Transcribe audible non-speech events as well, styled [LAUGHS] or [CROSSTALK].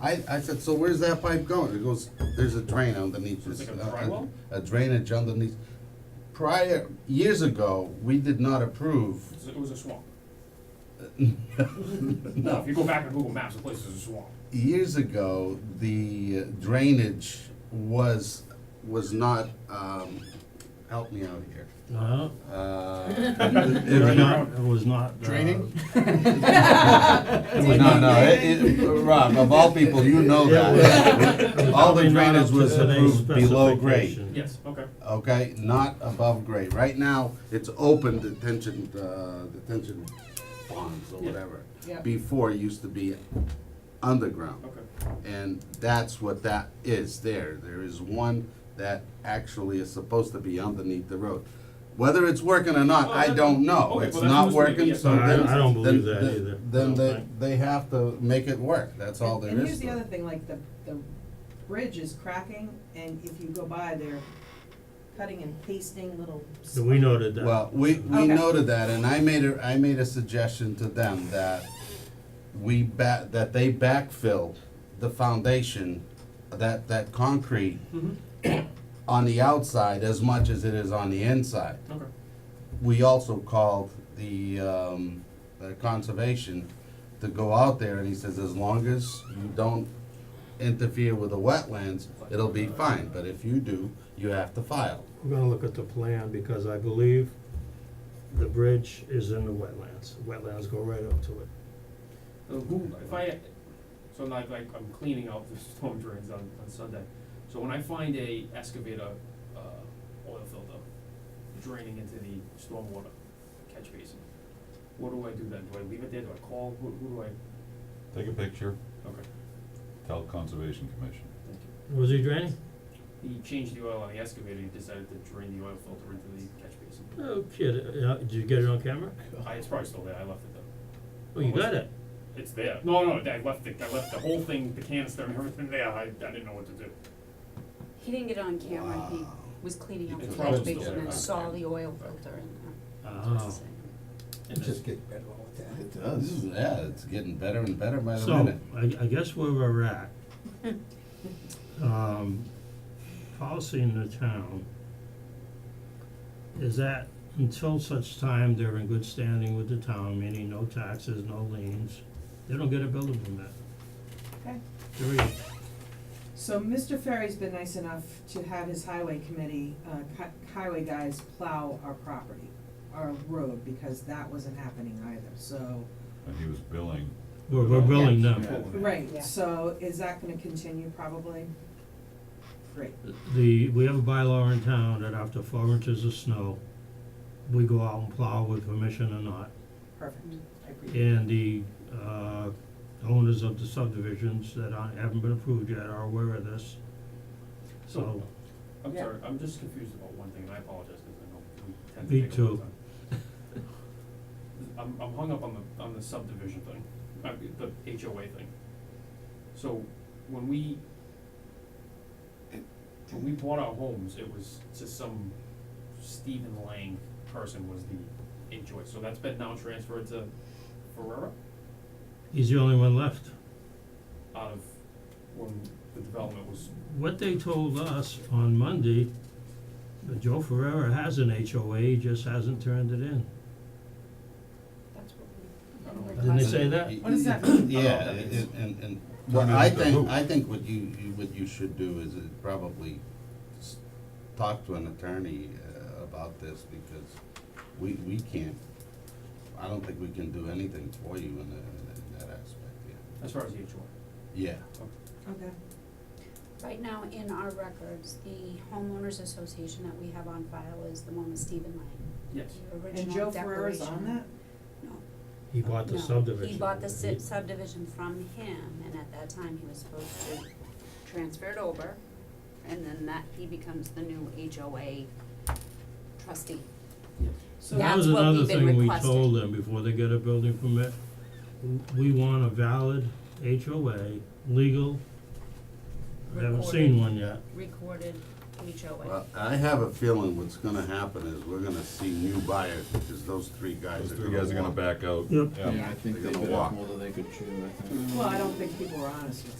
I, I said, so where's that pipe going? It goes, there's a drain underneath this. uh, Like a dry well? A drainage underneath. Prior, years ago, we did not approve. [LAUGHS] It's- It was a swamp. No, if you go back to Google Maps, the place is a swamp. Years ago, the drainage was, was not, um, help me out here. Uh-huh. Uh, It it was was not- not, it was not. uh, Draining? No, no, [LAUGHS] it, it, Rob, of all people, you know [LAUGHS] that. Oh, All the Probably not drainage up to was today's approved below grade, specification. Yes, okay. okay, not above grade. Right now, it's open detention, uh, detention ponds or Yeah. whatever. Yeah. Before, it used to be underground. Okay. And that's what that is there. There is one that actually is supposed to be underneath the road. Whether it's working or not, Oh, I that- don't know. okay, It's well, that's not news to me, working, yeah. so No, I- then. I don't believe then- that then- either. I Then don't they, think. they have to make it work. That's all there And here's is. the to other it. thing, like the, the bridge is cracking and if you go by, they're cutting and pasting little. So we noted that. Well, we, we Okay. noted that and I made a, I made a suggestion to them that we ba- that they backfill the foundation, that, that concrete Mm-hmm. on the outside as much as it is on the inside. Okay. we also called the, um, the conservation to go out there, and he says, as long as you don't interfere with the wetlands, it'll be fine, but if you do, you have to file. We're gonna look at the plan because I believe the bridge is in the wetlands. Wetlands go right up to it. Uh, who, if I, so I'm like, like, I'm cleaning out the [LAUGHS] storm drains on, on Sunday. So when I find a excavator, uh, oil filter draining into the stormwater catch basin, what do I do then? Do I leave it there? Do I call? Who, who do I? Take a picture, Okay, tell Conservation Commission. thank you. Was he draining? He changed the oil on the excavator. He decided to drain the oil filter into the catch basin. No kid, uh, did you get it on camera? I, it's probably still there. I left it there. Oh, you got it. It's there. No, no, I left the, I left the whole thing, the canister and everything there. I, I didn't know what to do. He didn't get it on camera, he was cleaning up It's the probably catch still basin there. and saw the oil filter in there. Oh. And then- get better all the time. It does. Yeah, it's getting better and better by the So, minute. I, I guess where we're at, um, policy in the town is that until such time they're in good standing with the town, meaning no taxes, no liens, they don't get a building permit. Okay. Period. So Mr. Ferry's been nice enough to have his highway committee, uh, hi- highway guys plow our property, our road, because that wasn't happening either, so. And he was billing, We're, we're billing Yeah. them. Right, Yeah. so is that gonna continue probably? Great, The, we have a bylaw in town that after four inches of snow, we go out and plow with permission or not. perfect, Mm. I agree. And the uh, owners of the subdivisions that aren't- haven't been approved yet are aware of this. So, I'm Yeah. sorry, I'm just confused about one thing, and I apologize, because I know we tend Me to take a long too. time. I'm, I'm hung up on the, on the subdivision thing, uh, the HOA thing. So, when we, when we bought our homes, it was to some Stephen Lang person was the HOA, so that's been now transferred to Ferrera he's the only one left. out of when the development was, What they told us on Monday, that Joe Ferrera has an HOA, he just hasn't turned it in. That's I don't know. what we. Didn't they say that? Y- What does that y- mean? Yeah, Oh, that it- is- it- and, and, what Turn it I into think, who? I think what you, you- what you should do is uh, probably s- talk to an attorney uh, about this, because we, we can't, I don't think we can do anything for you in, the- in that aspect, yeah. as far as the HOA. Yeah, Okay, Right now, in our records, the homeowners association that we have on file is the one with Stephen Lang, Yes, the and original Joe declaration. Ferrera's on that? No, He bought the no. subdivision. He bought the si- He- subdivision from him, and at that time, he was supposed to transfer it over, and then that, he becomes the new HOA trustee. So That That's was what another we've been thing we requesting. told them before they get a building permit. W- We want a valid HOA, legal. I haven't seen Recorded. one yet. Recorded HOA. well, I have a feeling what's gonna happen is we're gonna see new buyers, because those three guys those are three guys are gonna walk. back out. Yep. Yeah. Yeah, I think They're they gonna bit walk. off more than they could chew, I think. Well, I don't think people were honest with